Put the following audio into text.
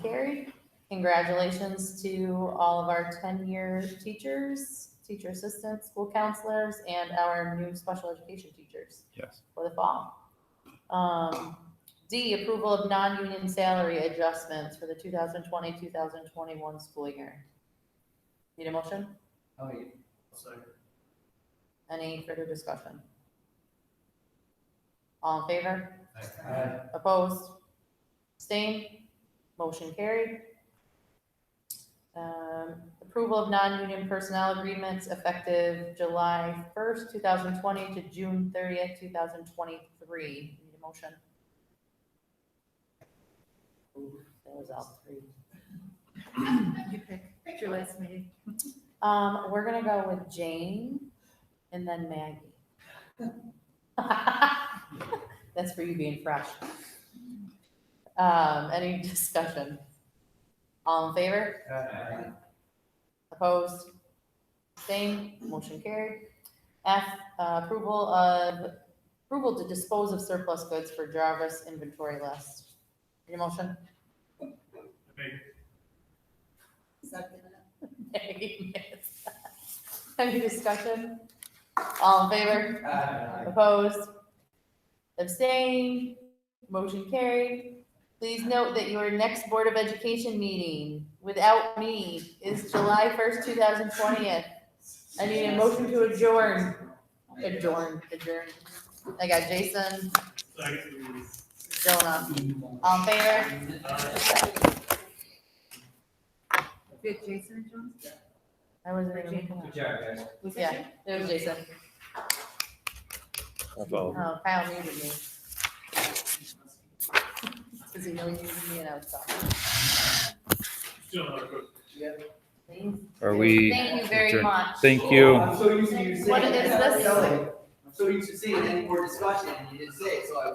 Congratulations to all of our ten-year teachers, teacher assistants, school counselors, and our new special education teachers Yes. for the fall. Um, D, approval of non-union salary adjustments for the 2020-2021 school year. Need a motion? Oh, yeah. Second. Any further discussion? All in favor? Aye. Opposed? Abstained? Motion carried. Um, approval of non-union personnel agreements effective July first, two thousand twenty to June thirtieth, two thousand twenty-three. Need a motion? Ooh, that was all three. You pick, pick your last meeting. Um, we're gonna go with Jane and then Maggie. That's for you being fresh. Um, any discussion? All in favor? Aye. Opposed? Same, motion carried. F, uh, approval of, approval to dispose of surplus goods for Jarvis inventory list. Need a motion? Nay, yes. Any discussion? All in favor? Aye. Opposed? Abstained? Motion carried. Please note that your next Board of Education meeting without me is July first, two thousand twentieth. I need uh, a motion to adjourn. Adjourn, adjourn. I got Jason, Jonah, all in favor? uh, Did Jason and Jones? I wasn't Good even, job, guys. Was it Yeah. you? it was Jason. Oh, Kyle muted me. Cause he really needed me and I was talking. Are we? Thank you very adjourned? much. Thank you. I'm so used to you saying. What is this? I'm so used to seeing any more discussion, and you didn't say it, so I